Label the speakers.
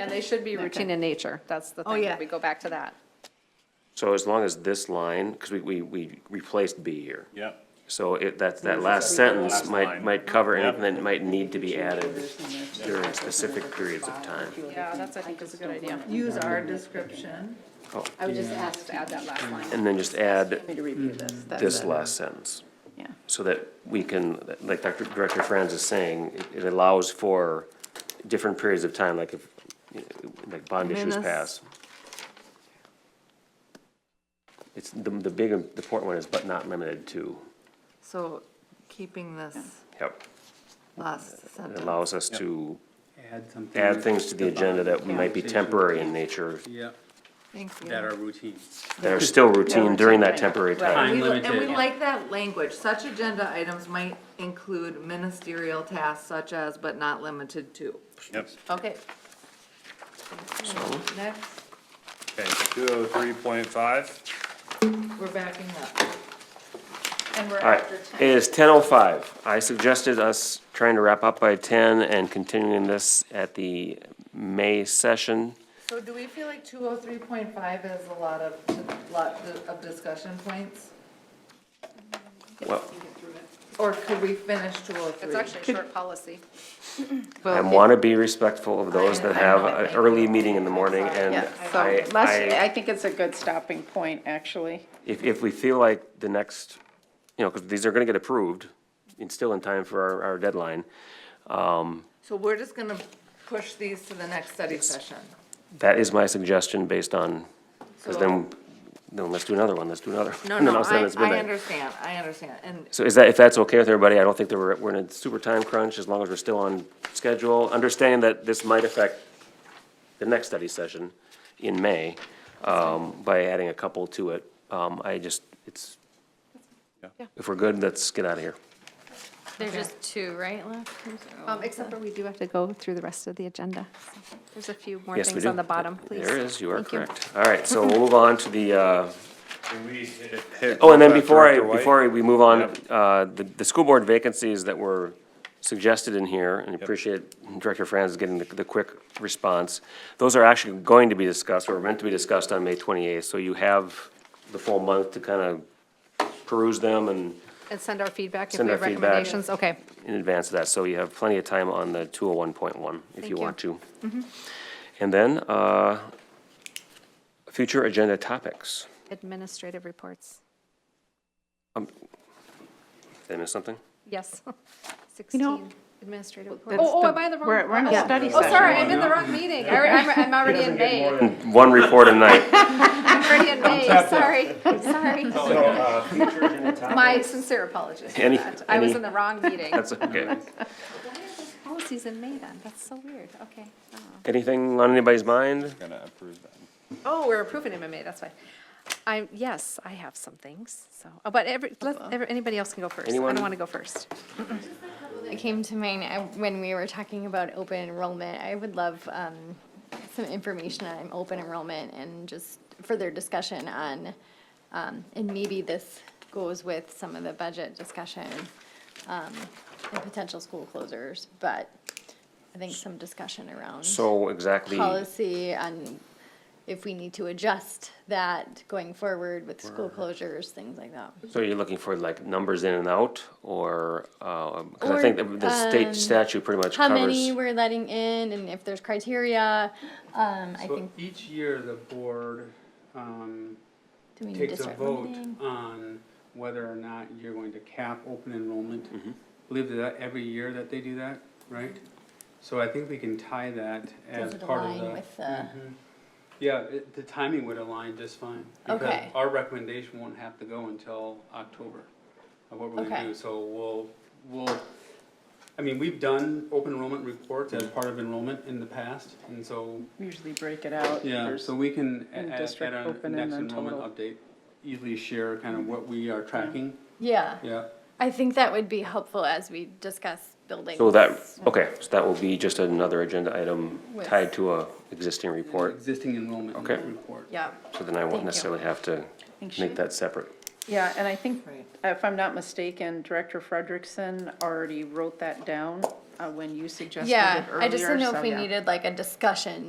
Speaker 1: And they should be routine in nature. That's the
Speaker 2: Oh,
Speaker 1: thing,
Speaker 2: yeah.
Speaker 1: we go back to that.
Speaker 3: So as long as this line, because we, we, we replaced B here.
Speaker 4: Yep.
Speaker 3: So it, that's, that last sentence
Speaker 4: Last
Speaker 3: might,
Speaker 4: line.
Speaker 3: might cover
Speaker 4: Yep.
Speaker 3: anything that might need to be added during specific periods of time.
Speaker 1: Yeah, that's, I think, is a good idea.
Speaker 2: Use our description.
Speaker 5: I would just ask
Speaker 1: Just add that last line.
Speaker 3: And then just add
Speaker 5: me to review this.
Speaker 4: Mm.
Speaker 5: That's
Speaker 3: this
Speaker 5: it.
Speaker 3: last sentence,
Speaker 5: Yeah.
Speaker 3: so that we can, like Dr. Director Franz is saying, it- it allows for different periods of time, like if, you know, like bond issues
Speaker 2: Minus-
Speaker 3: pass. It's, the, the big, the important one is but not limited to,
Speaker 2: So keeping this
Speaker 3: yep.
Speaker 2: last
Speaker 3: It
Speaker 2: sentence.
Speaker 3: allows us to
Speaker 6: Add something.
Speaker 3: add things to the agenda that might be temporary in nature,
Speaker 6: Yeah,
Speaker 2: Thank you.
Speaker 6: that are routine.
Speaker 3: that are still routine during that temporary
Speaker 2: Right.
Speaker 3: time.
Speaker 2: We- And we
Speaker 6: limited.
Speaker 2: like that language. Such agenda items might include ministerial tasks such as but not limited to.
Speaker 4: Yep.
Speaker 2: Okay. Next,
Speaker 4: Okay, two oh three point five.
Speaker 2: we're backing up.
Speaker 5: And we're
Speaker 3: All right, it is ten oh five. I suggested us trying to wrap up by ten and continuing this at the May session.
Speaker 2: So do we feel like two oh three point five is a lot of, lot of discussion points?
Speaker 3: Well,
Speaker 2: Or could we finish two oh three?
Speaker 1: It's actually a short policy.
Speaker 3: I want to be respectful of those that have an early meeting in the morning and
Speaker 5: Yeah, so
Speaker 3: I,
Speaker 5: last, I
Speaker 3: I,
Speaker 5: think it's a good stopping point, actually.
Speaker 3: if, if we feel like the next, you know, because these are going to get approved, it's still in time for our, our deadline.
Speaker 2: So we're just gonna push these to the next study session.
Speaker 3: That is my suggestion based on, because then, then let's do another one, let's do another.
Speaker 2: No,
Speaker 3: and then
Speaker 2: no,
Speaker 3: all of a sudden
Speaker 2: I,
Speaker 3: it's
Speaker 2: I
Speaker 3: midnight.
Speaker 2: understand, I understand, and
Speaker 3: So is that, if that's okay with everybody, I don't think that we're, we're in a super time crunch, as long as we're still on schedule. Understanding that this might affect the next study session in May, um, by adding a couple to it. Um, I just, it's, if we're good, let's get out of here.
Speaker 7: There's just two, right, left? I'm sorry.
Speaker 1: Um, except for we do have to go through the rest of the agenda. There's a few more
Speaker 3: Yes, we
Speaker 1: things
Speaker 3: do.
Speaker 1: on the bottom, please.
Speaker 3: There is, you are
Speaker 1: Thank you.
Speaker 3: correct. All right, so we'll move on to the, uh,
Speaker 4: Can we hit- hit
Speaker 3: Oh, and then
Speaker 4: that
Speaker 3: before I,
Speaker 4: Uh, Director White?
Speaker 3: before we move on,
Speaker 4: Yep.
Speaker 3: uh, the, the school board vacancies that were suggested in here, and I appreciate Director Franz getting the, the quick response. Those are actually going to be discussed, or meant to be discussed on May twenty-eighth, so you have the full month to kind of peruse them and
Speaker 1: And send our feedback if
Speaker 3: Send
Speaker 1: we
Speaker 3: our
Speaker 1: have
Speaker 3: feedback.
Speaker 1: recommendations. Okay,
Speaker 3: in advance of that, so you have plenty of time on the two oh one point one, if
Speaker 1: Thank
Speaker 3: you
Speaker 1: you. Mm-hmm.
Speaker 3: want to. And then, uh, future agenda topics.
Speaker 1: administrative reports.
Speaker 3: Did I miss something?
Speaker 1: Yes.
Speaker 5: know,
Speaker 1: Sixteen administrative reports.
Speaker 5: that's
Speaker 1: Oh, oh,
Speaker 5: the-
Speaker 1: am I the wrong?
Speaker 5: we're- we're in a
Speaker 1: uh-oh.
Speaker 5: study
Speaker 1: Oh,
Speaker 5: session.
Speaker 1: sorry, I'm in the wrong meeting. I re- I'm, I'm already in May.
Speaker 3: One report a night.
Speaker 1: I'm already in May, sorry, sorry. My sincere apologies for
Speaker 3: Any-
Speaker 1: that. I was
Speaker 3: any-
Speaker 1: in the wrong meeting.
Speaker 3: That's okay.
Speaker 1: Policies in May then, that's so weird, okay. Oh.
Speaker 3: Anything on anybody's mind?
Speaker 4: Gonna approve that.
Speaker 1: Oh, we're approving MMA, that's fine. I'm, yes, I have some things, so, oh, but every, let, every- anybody else can go first. I
Speaker 3: Anyone-
Speaker 1: don't want to go first.
Speaker 7: It came to mind uh, when we were talking about open enrollment. I would love um, some information on open enrollment and just further discussion on, um, and maybe this goes with some of the budget discussion um, and potential school closures, but I think some discussion around
Speaker 3: So exactly,
Speaker 7: policy on if we need to adjust that going forward with school closures, things like that.
Speaker 3: so you're looking for like numbers in and out or, um 'cause I
Speaker 7: Or,
Speaker 3: think the- the state
Speaker 7: um,
Speaker 3: statute pretty much
Speaker 7: how many
Speaker 3: covers.
Speaker 7: we're letting in and if there's criteria. Um, I
Speaker 6: So
Speaker 7: think,
Speaker 6: each year, the board, um,
Speaker 7: do we need to
Speaker 6: takes a
Speaker 7: start
Speaker 6: vote
Speaker 7: limiting?
Speaker 6: on whether or not you're going to cap open enrollment. Believe that every year that they do that, right? So I think we can tie that as
Speaker 7: Does it
Speaker 6: part of
Speaker 7: align
Speaker 6: the.
Speaker 7: with the-
Speaker 6: Mhm. Yeah, it, the timing would align just fine. because
Speaker 7: Okay.
Speaker 6: Our recommendation won't have to go until October of what we're gonna
Speaker 7: Okay.
Speaker 6: do, so we'll, we'll, I mean, we've done open enrollment reports as part of enrollment in the past, and so
Speaker 5: Usually break it out.
Speaker 6: yeah, so we can, a-
Speaker 5: and
Speaker 6: a- at
Speaker 5: district
Speaker 6: our
Speaker 5: open and
Speaker 6: next
Speaker 5: then
Speaker 6: enrollment
Speaker 5: total.
Speaker 6: update, easily share kind of what we are tracking,
Speaker 7: Yeah,
Speaker 6: yeah.
Speaker 7: I think that would be helpful as we discuss building.
Speaker 3: So that, okay, so that will be just another agenda item
Speaker 7: With-
Speaker 3: tied to a existing report.
Speaker 6: Existing enrollment
Speaker 3: Okay.
Speaker 6: report.
Speaker 2: Yeah.
Speaker 3: So then I won't
Speaker 7: you.
Speaker 3: necessarily have to
Speaker 5: she-
Speaker 3: make that separate.
Speaker 5: Yeah, and I think,
Speaker 2: Right.
Speaker 5: if I'm not mistaken, Director Frederickson already wrote that down uh, when you suggested it
Speaker 7: Yeah,
Speaker 5: earlier.
Speaker 7: I just didn't know
Speaker 5: so
Speaker 7: if we
Speaker 5: yeah.
Speaker 7: needed like a discussion